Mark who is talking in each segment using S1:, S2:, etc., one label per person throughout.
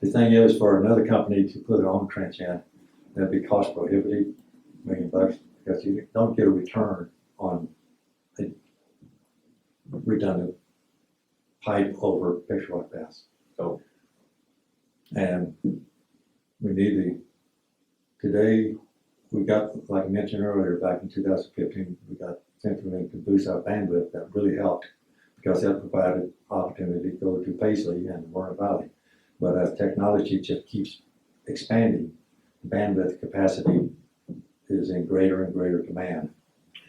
S1: The thing is, for another company to put it on trench end, that'd be cost prohibitive, million bucks, because you don't get a return on a redundant pipe over picture like this.
S2: Oh.
S1: And we need the, today, we got, like I mentioned earlier, back in two thousand fifteen, we got Symphony to boost our bandwidth, that really helped, because that provided opportunity to go to Paisley and Warren Valley. But as technology just keeps expanding, bandwidth capacity is in greater and greater demand.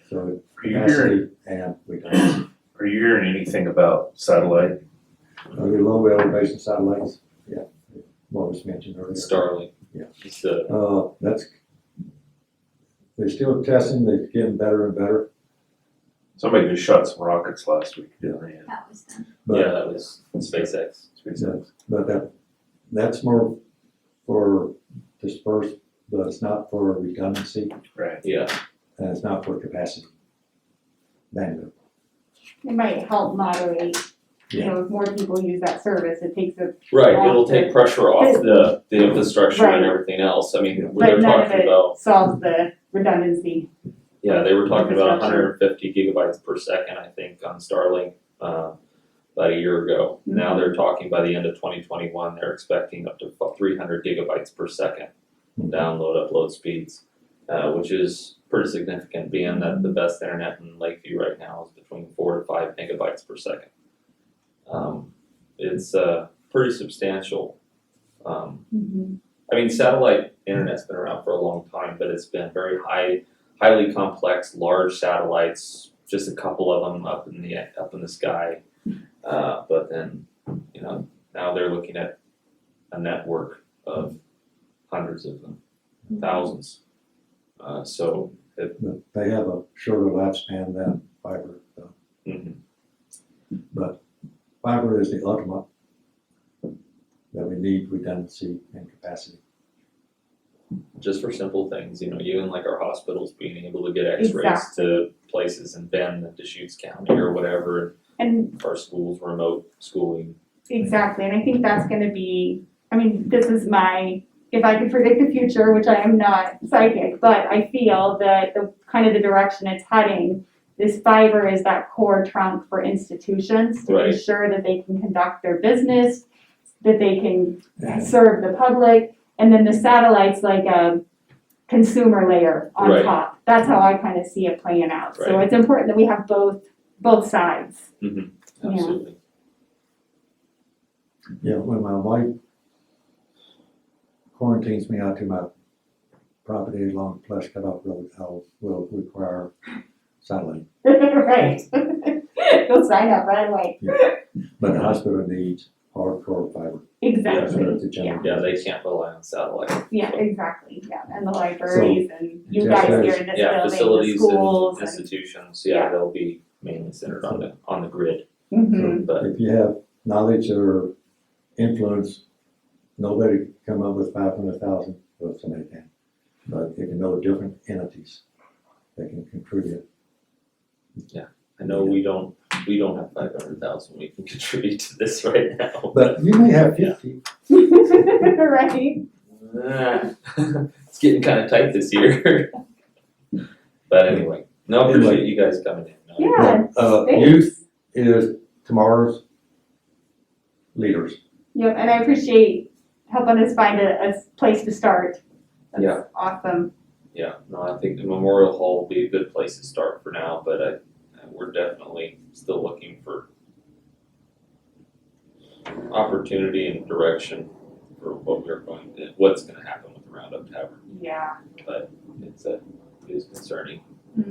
S1: So
S3: Are you hearing,
S1: capacity and redundancy.
S3: are you hearing anything about satellite?
S1: Are there low elevation satellites? Yeah, what was mentioned earlier.
S2: Starlink.
S1: Yeah.
S2: It's the,
S1: Uh, that's, they're still testing, they're getting better and better,
S3: Somebody just shot some rockets last week, didn't they?
S4: That was them.
S2: yeah,
S1: but,
S2: that was SpaceX.
S3: SpaceX.
S1: but that, that's more for dispersed, but it's not for redundancy,
S3: Right.
S2: Yeah,
S1: and it's not for capacity. Bandwidth.
S5: It might help moderate, you
S1: Yeah.
S5: know, if more people use that service, it takes a,
S2: right,
S5: Off
S2: it'll
S5: the-
S2: take pressure off the, the infrastructure and
S5: Right.
S2: everything else, I
S1: Yeah.
S2: mean, when
S5: but
S2: they're
S5: none of
S2: talking
S5: it
S2: about,
S5: solves the redundancy.
S2: yeah, they were talking about hundred
S5: Infrastructure.
S2: and fifty gigabytes per second, I think, on Starlink, uh, about a year ago. Now they're talking by the end of twenty twenty-one, they're expecting up to three hundred gigabytes per second
S1: Mhm.
S2: download, upload speeds, uh, which is pretty significant, being that the best internet in Lakeview right now is between four to five megabytes per second. Um, it's, uh, pretty substantial, um, I mean, satellite internet's been around for a long time, but it's been very high, highly complex, large satellites. Just a couple of them up in the up in the sky, uh, but then, you know, now they're looking at a network of hundreds of them, thousands. Uh, so,
S1: but they have a shorter lifespan than fiber. so
S2: mhm,
S1: Fiber is the ultimate that we need redundancy and capacity.
S2: just for simple things, you know, even like our hospitals being able to get X-rays to places in Bend, and Deschutes County, or whatever,
S5: And
S2: our schools remote schooling.
S5: exactly, and I think that's gonna be, I mean, this is my, if I could predict the future, which I am not psychic, but I feel that the, kind of the direction it's heading, this fiber is that core trunk for institutions to
S2: Right.
S5: ensure that they can conduct their business, that they can
S1: And
S5: serve the public, and then the satellite's like a consumer layer on
S2: Right.
S5: top. That's how I kind of see it playing out. So
S2: Right.
S5: it's important that we have both, both sides. Yeah.
S2: Absolutely.
S1: Yeah, when my wife quarantines me out to my property along Plush Cutoff Road, I will require satellite.
S5: Right. Go sign up right away.
S1: But the hospital needs hardcore fiber. That's
S5: Exactly.
S1: the general-
S2: Yeah, they can't rely on satellite.
S5: Yeah, exactly, yeah. And the libraries and you
S1: Just
S5: guys here
S1: as-
S5: in this
S2: Yeah,
S5: building, the
S2: facilities
S5: schools
S2: and
S5: and.
S2: institutions, yeah,
S5: Yeah.
S2: they'll be mainly centered on the, on the grid,
S5: Mhm.
S2: but
S1: If you have knowledge or influence, nobody can come up with five hundred thousand, well, somebody can. But if you know different entities, they can contribute.
S2: I know we don't, we don't have five hundred thousand we can contribute to this right now.
S1: But you may have fifty.
S5: Right,
S2: Ah, It's getting kinda tight this year. But anyway, no, I appreciate you guys coming in. No,
S5: yeah,
S1: Uh, youth
S5: thanks.
S1: is tomorrow's leaders.
S5: Yep, and I appreciate helping us find a, a place to start. That's
S2: Yeah.
S5: Awesome.
S2: Yeah, no, I think the Memorial Hall will be a good place to start for now, but I, we're definitely still looking for opportunity and direction for what we're going to, what's gonna happen with the Roundup Tavern.
S5: Yeah,
S2: It's a, it is concerning.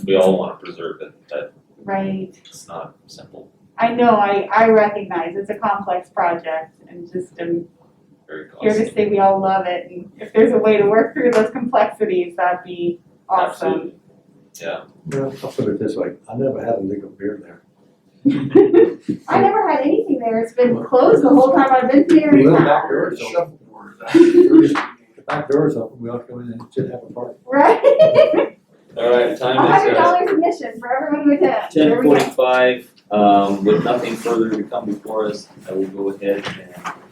S2: We all wanna preserve it, but
S5: Mm-hmm. right.
S2: it's not simple,
S5: I know, I, I recognize it's a complex project and just I'm
S2: very
S5: here to
S2: costly.
S5: say we all love it and if there's a way to work through those complexities, that'd be awesome.
S2: Absolutely. Yeah,
S1: Well, I'll put it this way, I never had a legal beer there.
S5: I never had anything there. It's been closed the whole time I've been here.
S1: Well, back door is open.
S6: shuffleboard.
S1: The back door is open, we ought to go in and should have a party.
S5: Right?
S2: alright,
S5: A
S2: time is
S5: hundred
S2: uh
S5: dollars admission for everyone who attends. There
S2: ten
S5: we go.
S2: forty-five, um, with nothing further to come before us, I will go ahead and